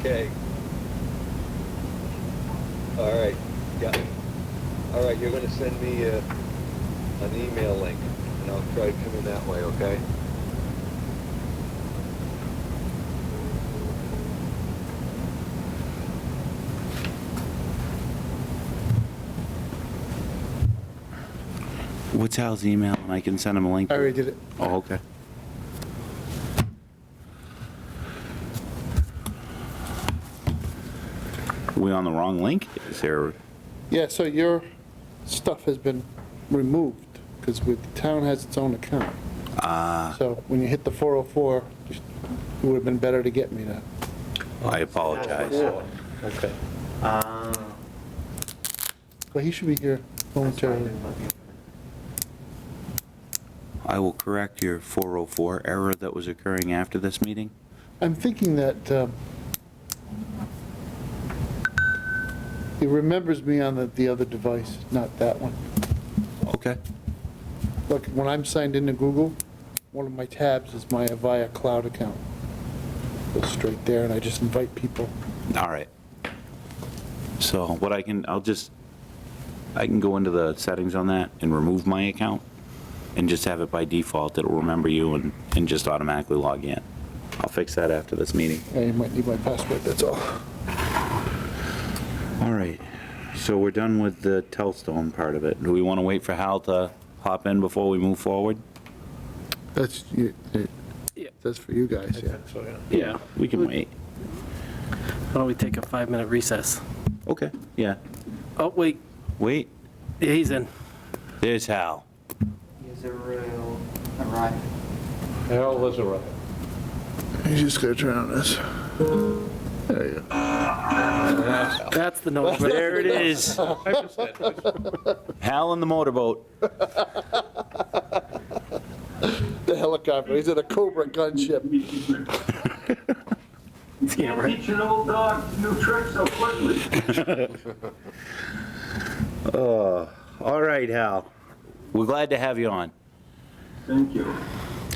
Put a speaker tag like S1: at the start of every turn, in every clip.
S1: Okay. All right, yeah. All right, you're gonna send me, uh, an email link, and I'll try to come in that way, okay?
S2: What's Al's email, and I can send him a link?
S3: I already did it.
S2: Oh, okay. We on the wrong link? Is there,
S3: Yeah, so your stuff has been removed, because the town has its own account.
S2: ah,
S3: So when you hit the 404, it would have been better to get me that.
S2: I apologize.
S4: Okay. Ah.
S3: But he should be here momentarily.
S2: I will correct your 404 error that was occurring after this meeting.
S3: I'm thinking that um, he remembers me on the, the other device, not that one.
S2: Okay.
S3: Look, when I'm signed into Google, one of my tabs is my Avaya Cloud account. Goes straight there, and I just invite people.
S2: All right. So what I can, I'll just, I can go into the settings on that and remove my account and just have it by default. It'll remember you and, and just automatically log in. I'll fix that after this meeting.
S3: Yeah, you might need my password, that's all.
S2: All right. So we're done with the Telstone part of it. Do we want to wait for Hal to hop in before we move forward?
S3: That's, you- it-
S5: Yeah.
S3: that's for you guys, yeah.
S2: Yeah. We can wait.
S5: Why don't we take a five-minute recess?
S2: Okay, yeah.
S5: Oh, wait,
S2: Wait,
S5: yeah, he's in.
S2: there's Hal.
S4: Is arrived?
S6: Harold has arrived.
S3: You just gotta turn on this. There you go.
S5: That's the noise.
S2: There it is. Hal in the motorboat.
S3: The helicopter, he's at a Cobra gunship.
S5: Yeah, right.
S7: Teach an old dog new tricks so quickly.
S2: All right, Hal. We're glad to have you on.
S7: Thank you.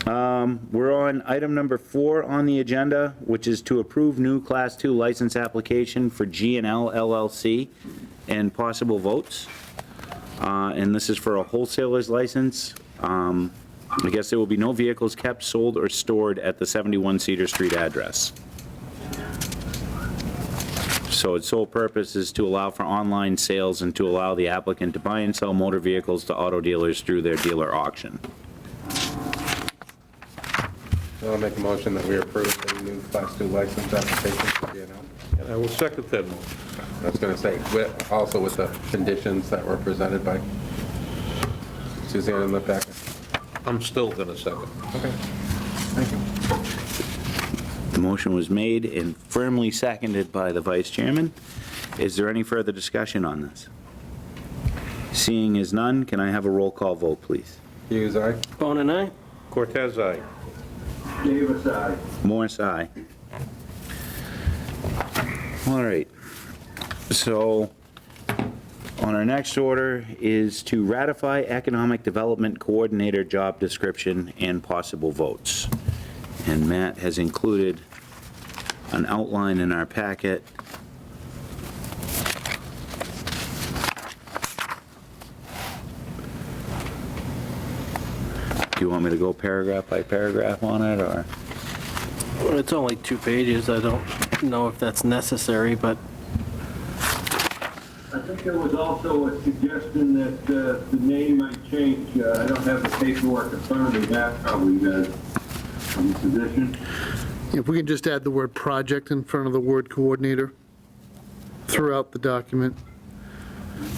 S2: We're on item number four on the agenda, which is to approve new Class Two license application for G and L LLC and possible votes. Uh, And this is for a wholesaler's license. Um, I guess there will be no vehicles kept, sold, or stored at the 71 Cedar Street address. So its sole purpose is to allow for online sales and to allow the applicant to buy and sell motor vehicles to auto dealers through their dealer auction.
S8: I'll make a motion that we approve the new Class 2 license application for DNL.
S6: I will second that motion.
S8: I was going to say, with- also with the conditions that were presented by Suzanne in the packet.
S6: I'm still going to second.
S2: The motion was made and firmly seconded by the vice chairman. Is there any further discussion on this? Seeing is none, can I have a roll call vote, please?
S8: Hughes, aye?
S5: Bone and I?
S6: Cortez, aye.
S7: Davis, I.
S2: Morris, aye. All right. So on our next order is to ratify Economic Development Coordinator job description and possible votes. And Matt has included an outline in our packet. Do you want me to go paragraph by paragraph on it, or?
S5: Well, It's only two pages. I don't know if that's necessary, but
S7: I think there was also a suggestion that uh, the name might change. Uh, I don't have the paperwork in front of me, that probably does, from the position.
S3: If we can just add the word project in front of the word coordinator throughout the document,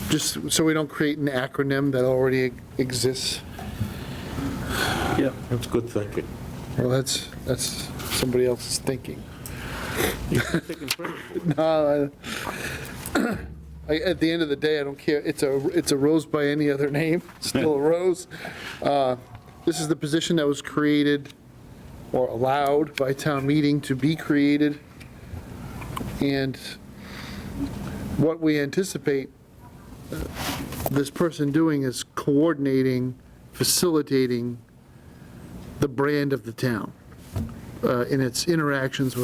S3: just so we don't create an acronym that already exists.
S6: That's good thinking.
S3: Well, that's, that's somebody else's thinking. No, I- I- At the end of the day, I don't care, it's a, it's a rose by any other name, It's still a rose. Uh, This is the position that was created or allowed by town meeting to be created. And what we anticipate uh, this person doing is coordinating, facilitating the brand of the town uh, in its interactions with